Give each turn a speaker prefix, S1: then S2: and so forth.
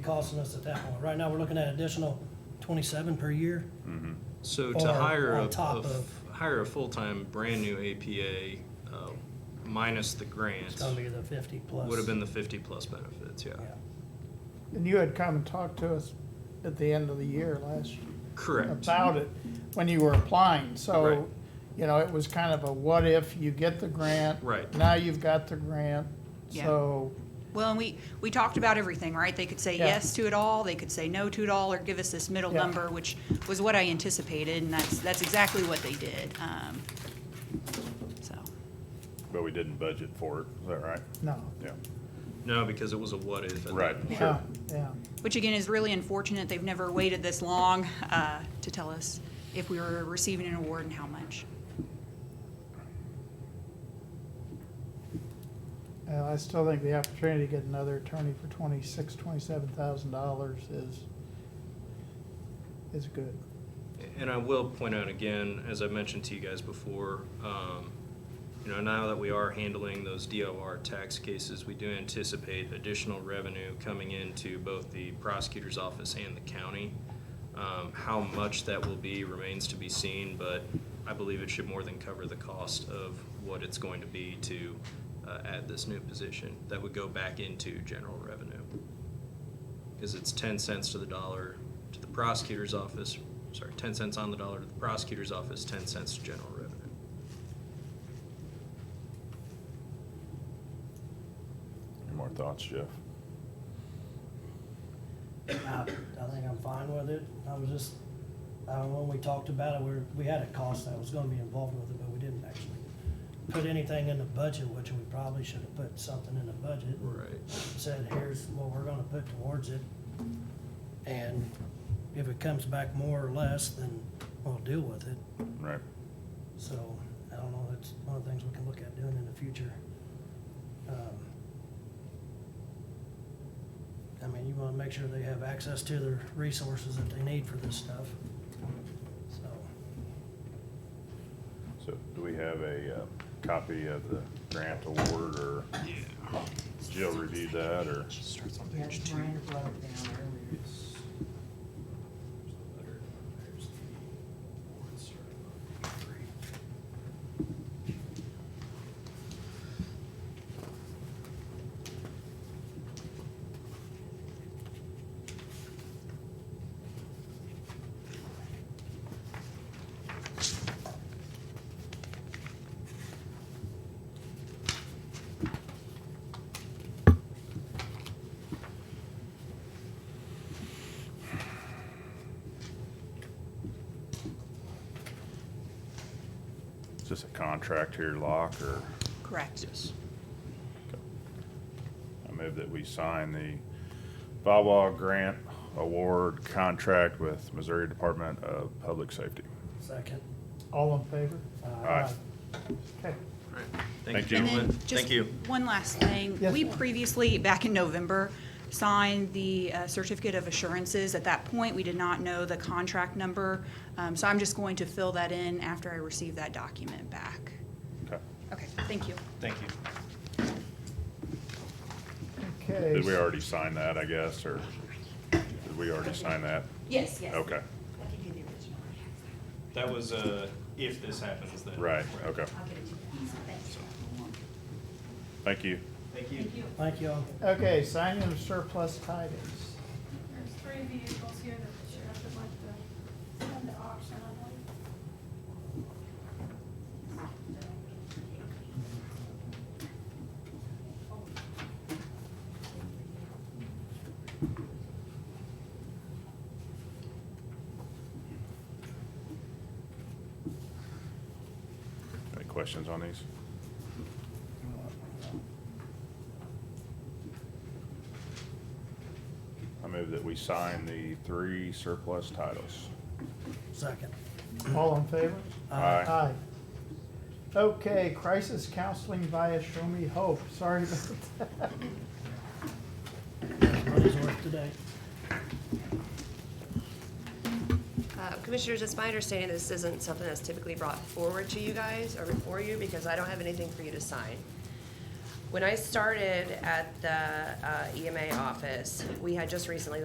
S1: costing us at that point. Right now, we're looking at additional twenty-seven per year.
S2: So
S1: Or
S2: to hire a,
S1: on top
S2: a-
S1: of-
S2: hire a full-time, brand-new APA, uh, minus the
S1: It's
S2: grants,
S1: gonna be the fifty plus.
S2: would have been the fifty-plus benefits, yeah.
S1: Yeah.
S3: And you had come and talked to us at the end of the year last,
S2: Correct,
S3: about it, when you were applying,
S2: Right.
S3: so, you know, it was kind of a what if you get the grant?
S2: Right.
S3: Now you've got the grant,
S4: Yeah.
S3: so,
S4: Well, and we, we talked about everything, right? They could say
S3: Yeah.
S4: yes to it all, they could say no to it all, or give us this middle
S3: Yeah.
S4: number, which was what I anticipated, and that's, that's exactly what they did. Um, So,
S5: But we didn't budget for it, is that right?
S3: no.
S5: Yeah,
S2: no, because it was a what-if.
S5: right,
S3: Yeah,
S5: sure.
S3: yeah,
S4: which again is really unfortunate, they've never waited this long uh, to tell us if we were receiving an award and how much.
S3: and I still think the opportunity to get another attorney for twenty-six, twenty-seven thousand dollars is, is good.
S2: And I will point out again, as I mentioned to you guys before, um, you know, now that we are handling those DOR tax cases, we do anticipate additional revenue coming into both the prosecutor's office and the county. Um, How much that will be remains to be seen, but I believe it should more than cover the cost of what it's going to be to uh, add this new position that would go back into general revenue is it's ten cents to the dollar to the prosecutor's office, sorry, ten cents on the dollar to the prosecutor's office, ten cents to general revenue.
S5: Any more thoughts, Jeff?
S1: I, I think I'm fine with it. I was just, I don't know, when we talked about it, we, were- we had a cost that was gonna be involved with it, but we didn't actually put anything in the budget, which we probably should have put something in the budget. and Said, here's what we're gonna put towards it. And if it comes back more or less, then we'll deal with it.
S5: Right,
S1: So, I don't know, that's one of the things we can look at doing in the future. Um, I mean, you wanna make sure they have access to the resources that they need for this stuff, so.
S5: so do we have a uh, copy of the grant award, or
S2: Yeah.
S5: Jill reviewed that, or?
S2: Starts on
S6: Yes,
S2: page two.
S6: Brian brought it down earlier.
S2: Yes. There's the letter, there's the award, starting on page three.
S5: Is this a contract here, Locke, or?
S4: Correct.
S2: Yes.
S5: I move that we sign the VAWA Grant Award Contract with Missouri Department of Public Safety.
S1: Second.
S3: All in favor?
S5: Aye.
S3: Okay,
S2: Alright,
S5: Thank
S2: thank you,
S5: you.
S4: And
S2: gentlemen,
S4: then
S2: thank
S4: just
S2: you.
S4: one last thing.
S3: Yes,
S4: We
S3: ma'am.
S4: previously, back in November, signed the uh, certificate of assurances. At that point, we did not know the contract number. Um, So I'm just going to fill that in after I receive that document back.
S5: Okay.
S4: Okay, thank you.
S2: Thank you.
S3: okay.
S5: Did we already sign that, I guess, or did we already sign that?
S4: Yes, yes.
S5: Okay,
S6: I'll give you the original.
S2: That was, uh, if this happens, then.
S5: right, okay.
S6: I'll get it to you. Thanks.
S5: Thank you.
S2: Thank you.
S1: Thank you all.
S3: Okay, signing of surplus titles.
S7: There's three vehicles here that the sheriff would like to send to auction, I believe.
S5: Any questions on these? I move that we sign the three surplus titles.
S1: Second.
S3: All in favor?
S5: Aye.
S3: Aye. Okay, crisis counseling via Show Me Hope. Sorry about that.
S1: Everybody's work today.
S8: Uh, Commissioners, it's my understanding this isn't something that's typically brought forward to you guys or before you, because I don't have anything for you to sign. E When I started at the uh, EMA office, we had just recently